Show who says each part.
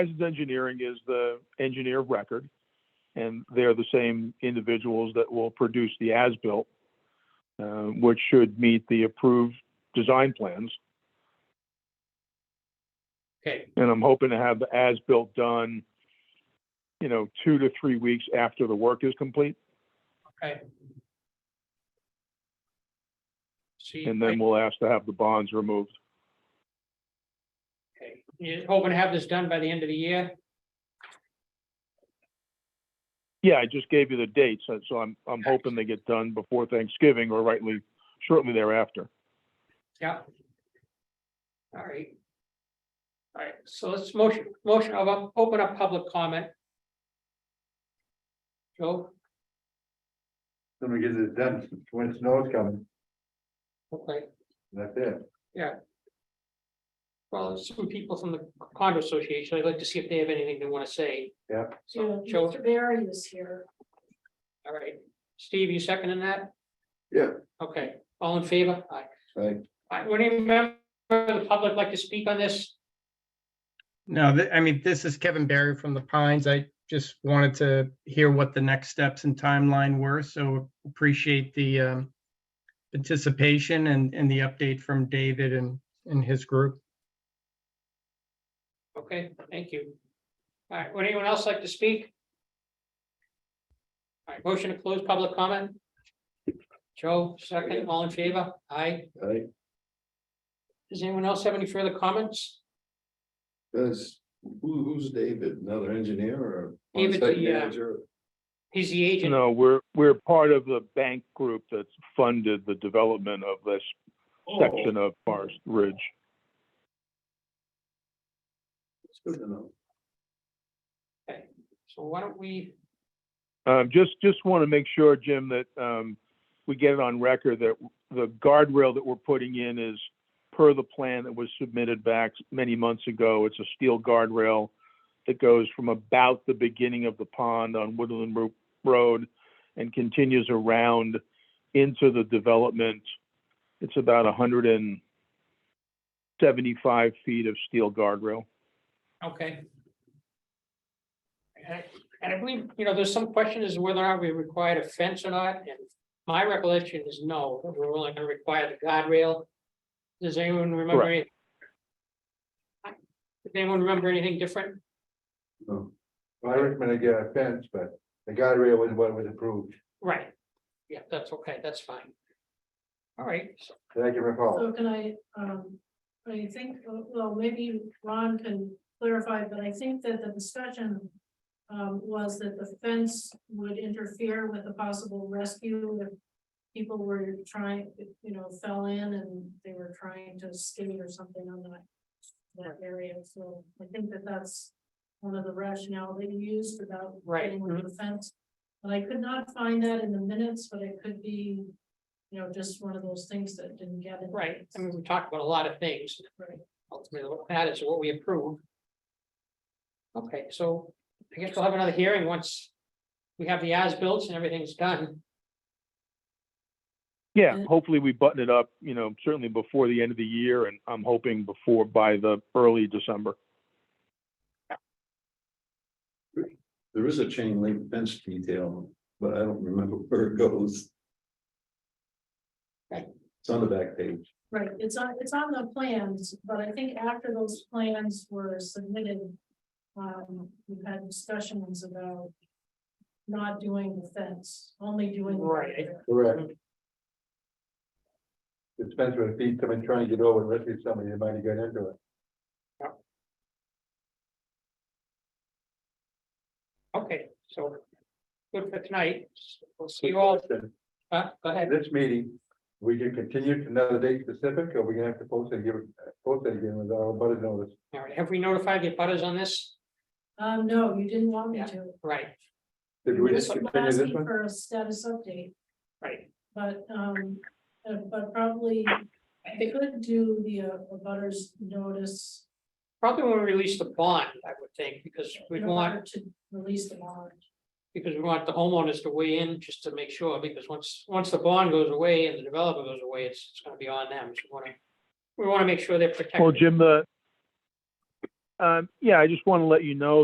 Speaker 1: Horizons Engineering is the engineer of record, and they're the same individuals that will produce the as-built, uh, which should meet the approved design plans.
Speaker 2: Okay,
Speaker 1: And I'm hoping to have the as-built done, you know, two to three weeks after the work is complete,
Speaker 2: okay. See,
Speaker 1: and then
Speaker 2: I-
Speaker 1: we'll ask to have the bonds removed.
Speaker 2: okay. you hoping to have this done by the end of the year?
Speaker 1: Yeah, I just gave you the dates, so- so I'm, I'm hoping they get done before Thanksgiving or rightly shortly thereafter.
Speaker 2: Yeah. All right. All right, so let's motion, motion of, up- open up public comment. Joe,
Speaker 3: Then we get it done when snow's coming,
Speaker 2: okay,
Speaker 3: that's it.
Speaker 2: well, there's some people from the condo association, I'd like to see if they have anything they want to say.
Speaker 3: Yeah.
Speaker 2: So,
Speaker 4: So
Speaker 2: Joe?
Speaker 4: Mr. Barry is here.
Speaker 2: All right, Steve, you seconding that?
Speaker 3: Yeah.
Speaker 2: Okay, all in favor? Aye.
Speaker 3: Right.
Speaker 2: Aye. Would any member of the public like to speak on this?
Speaker 5: No, th- I mean, this is Kevin Barry from the Pines. I just wanted to hear what the next steps and timeline were, so appreciate the um, participation and, and the update from David and, and his group.
Speaker 2: Okay, thank you. All right, would anyone else like to speak? All right, motion to close public comment? Joe, second, all in favor? Aye.
Speaker 3: Right,
Speaker 2: Does anyone else have any further comments?
Speaker 3: does, who, who's David, another engineer or?
Speaker 2: David, the,
Speaker 3: on-site
Speaker 2: uh,
Speaker 3: manager?
Speaker 2: He's the agent.
Speaker 1: No, we're, we're part of the bank group that's funded the development of this section of Forest Ridge.
Speaker 3: It's good to know.
Speaker 2: So why don't we,
Speaker 1: Um, just, just want to make sure, Jim, that, um, we get it on record that the guardrail that we're putting in is per the plan that was submitted back many months ago. It's a steel guardrail that goes from about the beginning of the pond on Woodland Ro- Road and continues around into the development. It's about hundred and seventy-five feet of steel guardrail.
Speaker 2: okay. And I- And I believe, you know, there's some question as to whether or not we required a fence or not, and my recollection is no, that we're only gonna require the guardrail. Does anyone remember? any- Does anyone remember anything different?
Speaker 3: No. Well, I recommend I get a fence, but the guardrail was what was approved,
Speaker 2: Right. Yeah, that's okay, that's fine. All right, so-
Speaker 3: that I can
Speaker 2: Oh.
Speaker 3: recall.
Speaker 4: So can I, um, I think, well, maybe Ron can clarify, but I think that the discussion um, was that the fence would interfere with a possible rescue if people were trying, you know, fell in and they were trying to skate or something on that that area. So I think that that's one of the rationale that you used about
Speaker 2: Right. mm-hmm.
Speaker 4: getting rid of the fence. But I could not find that in the minutes, but it could be, you know, just one of those things that didn't get in.
Speaker 2: right, I mean, we talked about a lot of things.
Speaker 4: Right.
Speaker 2: Ultimately, what matters is what we approve. Okay, so I guess we'll have another hearing once we have the as-built and everything's done.
Speaker 1: Yeah,
Speaker 4: And-
Speaker 1: hopefully we button it up, you know, certainly before the end of the year, and I'm hoping before, by the early December.
Speaker 3: There is a chain link fence detail, but I don't remember where it goes.
Speaker 2: Right.
Speaker 3: It's on the back page.
Speaker 4: Right, it's on, it's on the plans, but I think after those plans were submitted, um, we've had discussions about not doing the fence, only doing. the
Speaker 2: Right.
Speaker 4: guardrail.
Speaker 3: Correct. It's fence with feet, someone trying to get over, and rescue somebody, they might have got into it.
Speaker 2: Okay, so good for tonight. We'll see you all. Uh, go
Speaker 3: At
Speaker 2: ahead.
Speaker 3: this meeting, we can continue to another date specific, or we gonna have to post it, give it, post it again with our butter notice?
Speaker 2: All right, have we notified the butters on this?
Speaker 4: Um, no, you didn't want me
Speaker 2: Yeah.
Speaker 4: to.
Speaker 2: Right,
Speaker 3: Did we
Speaker 4: This
Speaker 3: just
Speaker 4: was
Speaker 3: continue this
Speaker 4: asking
Speaker 3: one?
Speaker 4: For a status update,
Speaker 2: right.
Speaker 4: but, um, uh, but probably, they could do the, uh, butters notice.
Speaker 2: Probably when we release the bond, I would think, because we
Speaker 4: in
Speaker 2: want,
Speaker 4: order To release the bond.
Speaker 2: because we want the homeowners to weigh in just to make sure, because once, once the bond goes away and the developer goes away, it's, it's gonna be on them. So we wanna, we wanna make sure they're protected.
Speaker 1: Well, Jim, the, Um, yeah, I just want to let you know